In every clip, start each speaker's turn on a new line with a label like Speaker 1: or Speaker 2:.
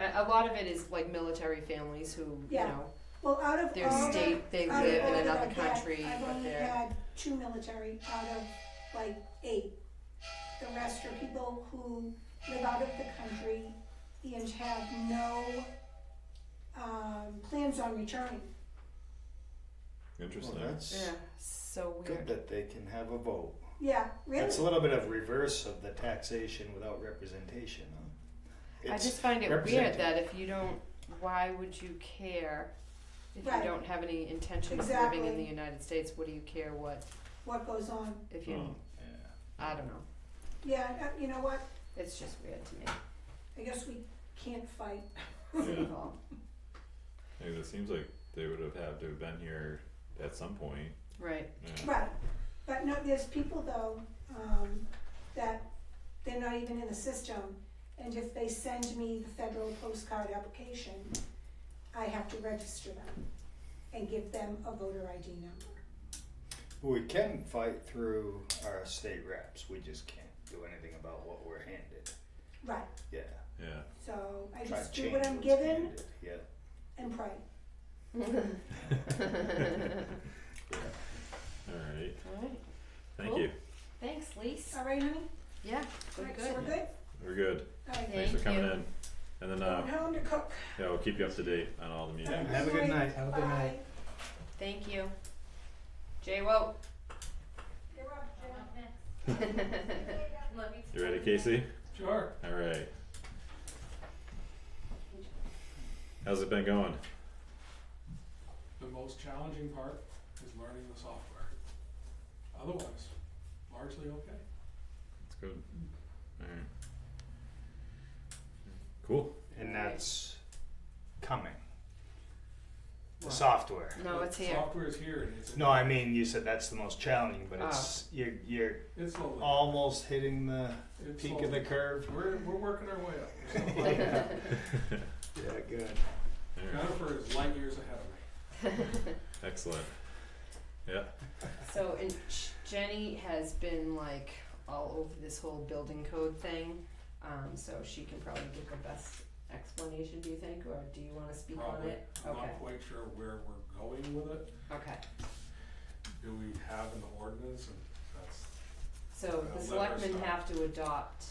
Speaker 1: a, a lot of it is like military families who, you
Speaker 2: Yeah. Oh,
Speaker 1: know,
Speaker 2: Well, out of
Speaker 1: their
Speaker 2: all the-
Speaker 1: state, they
Speaker 2: out of
Speaker 1: live
Speaker 2: all
Speaker 1: in
Speaker 2: that
Speaker 1: another
Speaker 2: I've had,
Speaker 1: country,
Speaker 2: I've
Speaker 1: but
Speaker 2: only
Speaker 1: they're,
Speaker 2: had two military out of like eight. The rest are people who live out of the country and have no um, plans on returning.
Speaker 3: Interesting.
Speaker 4: Well, that's
Speaker 1: yeah, so
Speaker 4: good
Speaker 1: weird.
Speaker 4: that they can have a vote.
Speaker 2: Yeah, really.
Speaker 4: That's a little bit of reverse of the taxation without representation, huh?
Speaker 1: I
Speaker 4: It's-
Speaker 1: just find it weird
Speaker 4: represented.
Speaker 1: that if you don't, why would you care? If you
Speaker 2: Right.
Speaker 1: don't have any intention of living in
Speaker 2: Exactly.
Speaker 1: the United States, what do you care what,
Speaker 2: What goes on?
Speaker 1: if
Speaker 4: Hmm.
Speaker 1: you,
Speaker 4: yeah.
Speaker 1: I don't know,
Speaker 2: Yeah, uh, you know what?
Speaker 1: it's just weird to me.
Speaker 2: I guess we can't fight.
Speaker 4: Hmm.
Speaker 1: It's
Speaker 3: Yeah.
Speaker 1: involved.
Speaker 3: Like, it seems like they would have had to have been here at some point.
Speaker 1: Right,
Speaker 3: Yeah.
Speaker 2: Right, but no, there's people though, um, that they're not even in the system, and if they send me the federal postcard application, I have to register them and give them a voter ID number.
Speaker 4: We can fight through our state reps. We just can't do anything about what we're handed.
Speaker 2: Right,
Speaker 4: Yeah.
Speaker 3: Yeah.
Speaker 2: so I
Speaker 4: Try
Speaker 2: just
Speaker 4: to
Speaker 2: do what
Speaker 4: change
Speaker 2: I'm
Speaker 4: what's
Speaker 2: given
Speaker 4: handed, Yeah.
Speaker 2: and pray.
Speaker 1: alright,
Speaker 3: All right. Thank you.
Speaker 1: thanks, Lise,
Speaker 2: All right, honey?
Speaker 1: yeah, we're
Speaker 2: Alright, so
Speaker 1: good,
Speaker 2: we're good?
Speaker 3: We're good.
Speaker 2: All right,
Speaker 3: Thanks for
Speaker 1: Thank
Speaker 3: coming
Speaker 1: you.
Speaker 3: in. And then
Speaker 2: going
Speaker 3: uh,
Speaker 2: home to cook.
Speaker 3: yeah, we'll keep you up to date on all the meetings.
Speaker 4: Have a good night.
Speaker 5: Have a good night.
Speaker 2: Bye.
Speaker 1: thank you. Jay Woke.
Speaker 2: You're up, Jim.
Speaker 3: You ready, Casey?
Speaker 5: Sure.
Speaker 3: All right. How's it been going?
Speaker 5: The most challenging part is learning the software. Otherwise, largely okay.
Speaker 3: It's good. All right. Cool.
Speaker 4: And that's coming. The
Speaker 5: Right.
Speaker 4: software.
Speaker 1: No,
Speaker 5: The
Speaker 1: it's here.
Speaker 5: Software is here and it's.
Speaker 4: No, I mean you said that's the most challenging,
Speaker 2: Ah.
Speaker 4: but it's you're you're
Speaker 5: It's slowly.
Speaker 4: almost hitting the
Speaker 5: It's
Speaker 4: peak of
Speaker 5: slowly.
Speaker 4: Oh, the curve.
Speaker 5: We're, we're working our way up. We're slowly.
Speaker 4: yeah, good.
Speaker 3: All right.
Speaker 5: Jennifer is light years ahead of me.
Speaker 3: Excellent. Yeah.
Speaker 1: So, and Sh- Jenny has been like all over this whole building code thing, um, so she can probably give the best explanation, do you think, or do you wanna speak on
Speaker 5: Probably.
Speaker 1: it?
Speaker 5: I'm not quite sure where we're going with it.
Speaker 1: Okay, okay,
Speaker 5: Do we have an ordinance and that's,
Speaker 1: so
Speaker 5: Well, let
Speaker 1: the
Speaker 5: her
Speaker 1: selectmen
Speaker 5: start.
Speaker 1: have to adopt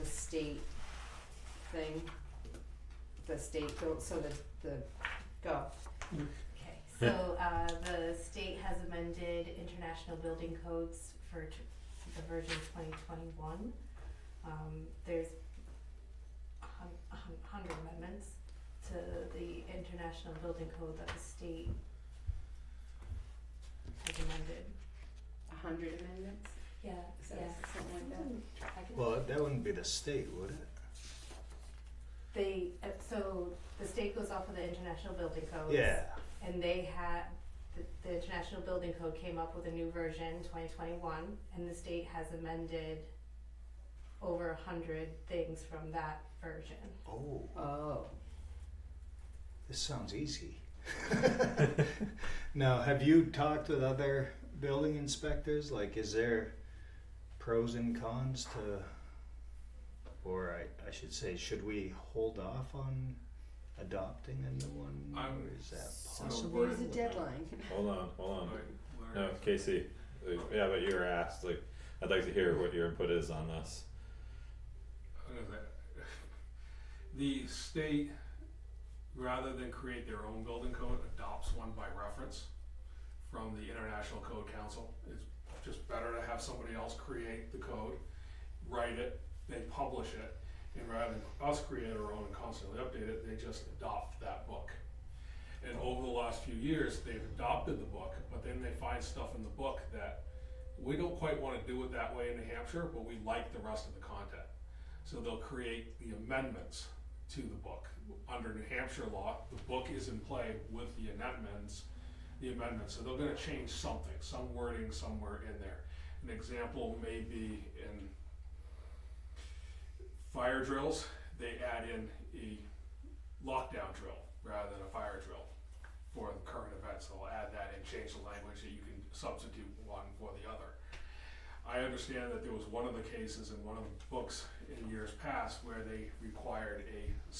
Speaker 1: the state thing, the state, go- so the, the, go,
Speaker 6: Okay, so uh, the state has amended international building codes for t- the version twenty twenty-one. Um, there's a hun- a hun- hundred amendments to the international building code that the state has amended.
Speaker 1: a hundred amendments,
Speaker 6: Yeah,
Speaker 1: is that
Speaker 6: yeah.
Speaker 1: something like that?
Speaker 6: I can-
Speaker 4: Well, that wouldn't be the state, would it?
Speaker 6: They, uh, so the state goes off of the international building codes.
Speaker 4: Yeah.
Speaker 6: and they had the, the International Building Code came up with a new version, 2021, and the state has amended over a hundred things from that version.
Speaker 4: Oh,
Speaker 1: Oh,
Speaker 4: this sounds easy. now, have you talked with other building inspectors? Like, is there pros and cons to, or I, I should say, should we hold off on adopting a new one?
Speaker 5: I'm
Speaker 4: or is that
Speaker 1: so
Speaker 4: possible?
Speaker 1: there's a deadline.
Speaker 3: Hold on. Hold on.
Speaker 5: like,
Speaker 3: No,
Speaker 5: Larry,
Speaker 3: Oh, Casey. uh, Yeah, but you were asked. Like, I'd like to hear what your input is on this.
Speaker 5: what is that? The state, rather than create their own building code, adopts one by reference from the International Code Council. It's just better to have somebody else create the code, write it, they publish it. And rather than us create our own and constantly update it, they just adopt that book. And over the last few years, they've adopted the book, but then they find stuff in the book that we don't quite wanna do it that way in New Hampshire, but we like the rest of the content. So they'll create the amendments to the book. Under New Hampshire law, the book is in play with the amendments, the amendments, so they're gonna change something, some wording somewhere in there. An example may be in fire drills, they add in a lockdown drill rather than a fire drill for the current events, they'll add that and change the language that you can substitute one for the other. I understand that there was one of the cases in one of the books in years past where they required a